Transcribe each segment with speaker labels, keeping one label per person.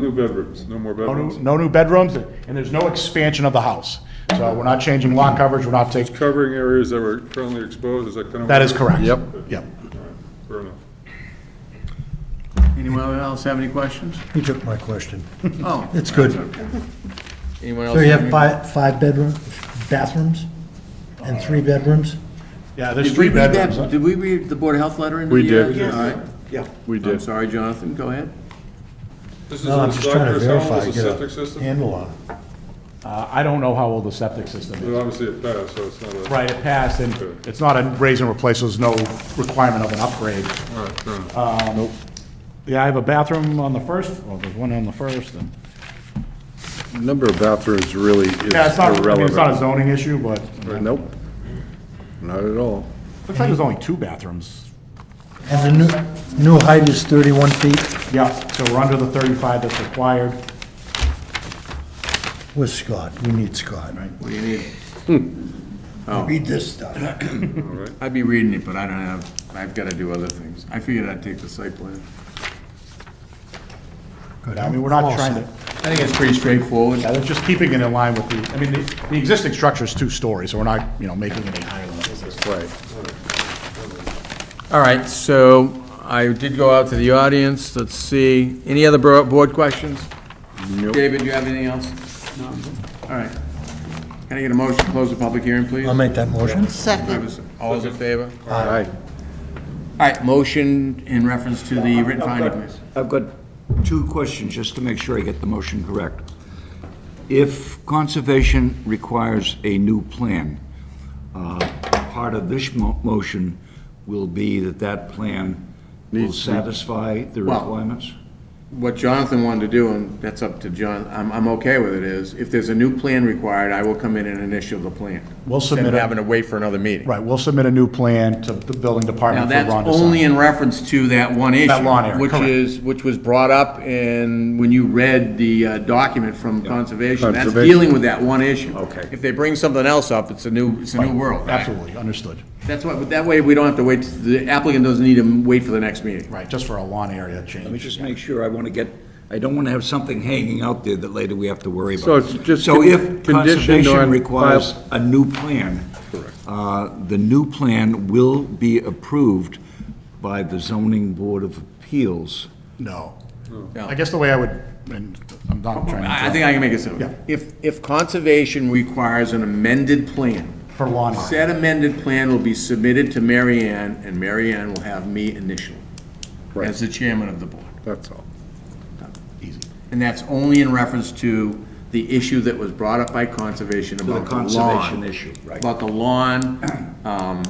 Speaker 1: new bedrooms, no more
Speaker 2: No
Speaker 1: bedrooms.
Speaker 2: new, no new bedrooms, and there's no expansion of the house. So we're not changing lot coverage, we're not taking,
Speaker 1: Covering areas that were currently exposed, is that kind of?
Speaker 2: that is correct.
Speaker 3: Yep.
Speaker 2: Yep.
Speaker 1: Fair enough.
Speaker 4: Anyone else have any questions?
Speaker 5: You took my question.
Speaker 4: Oh.
Speaker 5: It's good.
Speaker 4: Anyone else?
Speaker 5: So you have
Speaker 4: any-
Speaker 5: five, five bedroom, bathrooms, and three bedrooms?
Speaker 2: Yeah, there's
Speaker 4: Did we
Speaker 2: three
Speaker 4: read
Speaker 2: bedrooms.
Speaker 4: that, did we read the Board of Health letter in?
Speaker 1: We
Speaker 4: the, uh,
Speaker 1: did.
Speaker 4: All right.
Speaker 2: Yeah.
Speaker 3: We
Speaker 4: I'm
Speaker 3: did.
Speaker 4: sorry, Jonathan, go ahead.
Speaker 1: This is
Speaker 5: No,
Speaker 1: a
Speaker 5: I'm just trying to
Speaker 1: doctor's
Speaker 5: verify.
Speaker 1: home, this is
Speaker 5: get
Speaker 1: a
Speaker 5: a
Speaker 1: septic system?
Speaker 5: Handle on it.
Speaker 2: Uh, I don't know how old the septic system is.
Speaker 1: Well, Obviously it passed, so it's not a.
Speaker 2: Right, it passed, and it's not a raise and replace, so there's no requirement of an upgrade. Um,
Speaker 1: All right, fair enough.
Speaker 2: Yeah, I have a bathroom on the first, well, there's one on the first, and.
Speaker 3: Number of bathrooms really is
Speaker 2: Yeah, it's not, I mean, it's not a
Speaker 3: irrelevant.
Speaker 2: zoning issue, but
Speaker 3: Nope, not at all.
Speaker 2: looks like there's only two bathrooms.
Speaker 5: And the new, new height is 31 feet
Speaker 2: Yeah, so we're under the thirty-five that's required.
Speaker 5: with Scott. We need Scott.
Speaker 4: What do you need?
Speaker 1: Oh.
Speaker 5: Read this stuff.
Speaker 4: I'd be reading it, but I don't have, I've got to do other things. I figured I'd take the site plan.
Speaker 2: I mean, we're not
Speaker 5: Well
Speaker 2: trying
Speaker 5: said.
Speaker 2: to,
Speaker 4: I think it's pretty straightforward.
Speaker 2: yeah, they're just keeping it in line with the, I mean, the, the existing structure's two stories, so we're not, you know, making it any higher than it is.
Speaker 3: Right.
Speaker 4: All right, so I did go out to the audience. Let's see, any other bro- board questions? David, do you have anything else? No. All right. Can I get a motion to close the public hearing, please?
Speaker 5: I'll make that motion.
Speaker 6: Second,
Speaker 4: All those in favor? All
Speaker 3: All right.
Speaker 4: right, motion in reference to the written finding. please.
Speaker 7: I've got two questions, just to make sure I get the motion correct. If conservation requires a new plan, uh, part of this mo- motion will be that that plan will satisfy the
Speaker 4: Well-
Speaker 7: requirements?
Speaker 4: What Jonathan wanted to do, and that's up to John, I'm, I'm okay with it, is if there's a new plan required, I will come in and initial the plan.
Speaker 2: We'll submit
Speaker 4: Instead
Speaker 2: a-
Speaker 4: of having to wait for another meeting.
Speaker 2: Right, we'll submit a new plan to the building
Speaker 4: Now,
Speaker 2: department for
Speaker 4: that's
Speaker 2: Ron to
Speaker 4: only
Speaker 2: sign.
Speaker 4: in reference to that one issue.
Speaker 2: lawn area, correct.
Speaker 4: Which is, which was brought up in, when you read the uh, document from Conservation, that's
Speaker 3: Conservation.
Speaker 4: dealing with that one issue.
Speaker 3: Okay.
Speaker 4: If they bring something else up, it's a new, it's a new world, right?
Speaker 2: Absolutely, understood.
Speaker 4: That's why, but that way, we don't have to wait, the applicant doesn't need to wait for the next meeting.
Speaker 2: Right, just for a lawn area
Speaker 7: Let me
Speaker 2: change.
Speaker 7: just make sure, I want to get, I don't want to have something hanging out there that later we have to worry about.
Speaker 3: So it's just
Speaker 7: So
Speaker 3: con-
Speaker 7: if
Speaker 3: conditioned on
Speaker 7: conservation
Speaker 3: file-
Speaker 7: requires a new plan, uh, the new plan will be approved by the zoning board of appeals.
Speaker 2: No. I guess the way I would, and I'm not trying to.
Speaker 4: I I think I can make it
Speaker 2: Yeah.
Speaker 4: simple. If, if Conservation requires an amended plan,
Speaker 2: For lawn area.
Speaker 4: said amended plan will be submitted to Mary Ann, and Mary Ann will have me initial as the chairman of the board.
Speaker 3: That's all.
Speaker 4: And that's only in reference to the issue that was brought up by Conservation about the lawn.
Speaker 7: conservation issue, right.
Speaker 4: About the lawn, um,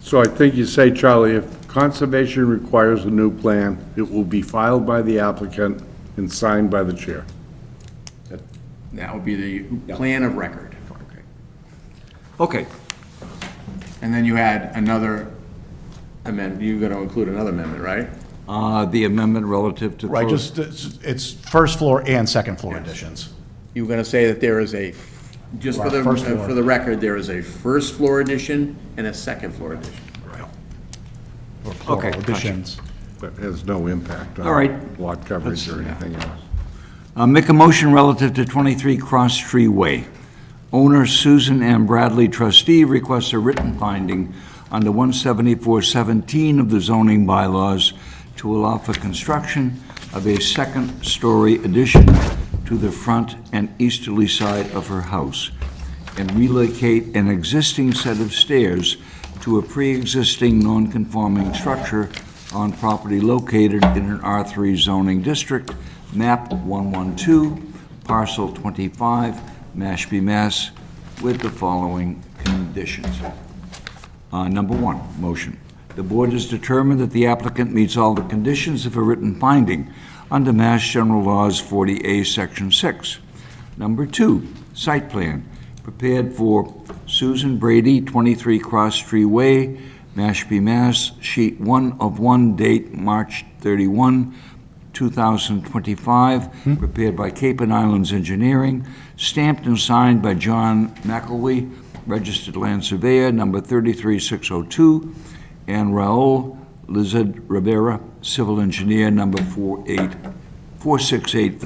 Speaker 3: So I think you say, Charlie, if conservation requires a new plan, it will be filed by the applicant and signed by the chair.
Speaker 4: that would be the plan of record.
Speaker 7: Okay,
Speaker 4: And then you had another amendment, you're gonna include another amendment, right?
Speaker 7: uh, the amendment relative to.
Speaker 2: Right,
Speaker 7: close-
Speaker 2: just, it's it's first floor and second floor additions.
Speaker 4: You were gonna say that there is a, just for the, uh,
Speaker 2: Right, first floor.
Speaker 4: for the record, there is a first floor addition and a second floor addition.
Speaker 2: or plural
Speaker 7: Okay, gotcha.
Speaker 2: Additions.
Speaker 3: That has no impact
Speaker 7: All
Speaker 3: on
Speaker 7: right.
Speaker 3: lot coverage or anything else.
Speaker 7: Uh, Make a motion relative to 23 Cross Tree Way. Owner Susan M. Bradley, trustee, requests a written finding under 17417 of the zoning bylaws to allow for construction of a second-story addition to the front and easterly side of her house, and relocate an existing set of stairs to a pre-existing non-conforming structure on property located in an R3 zoning district, map 112, parcel 25, Mashpee, Mass, with the following conditions. Uh, Number one, motion. The board has determined that the applicant meets all the conditions of a written finding under Mass General Laws 40A, Section 6. Number two, site plan, prepared for Susan Brady, 23 Cross Tree Way, Mashpee, Mass, sheet 1 of 1, date March 31, 2025, prepared by Cape and Islands Engineering, stamped and signed by John McElwee, Registered Land Surveyor, number 33602, and Raul Lizard Rivera, Civil Engineer, number 48 468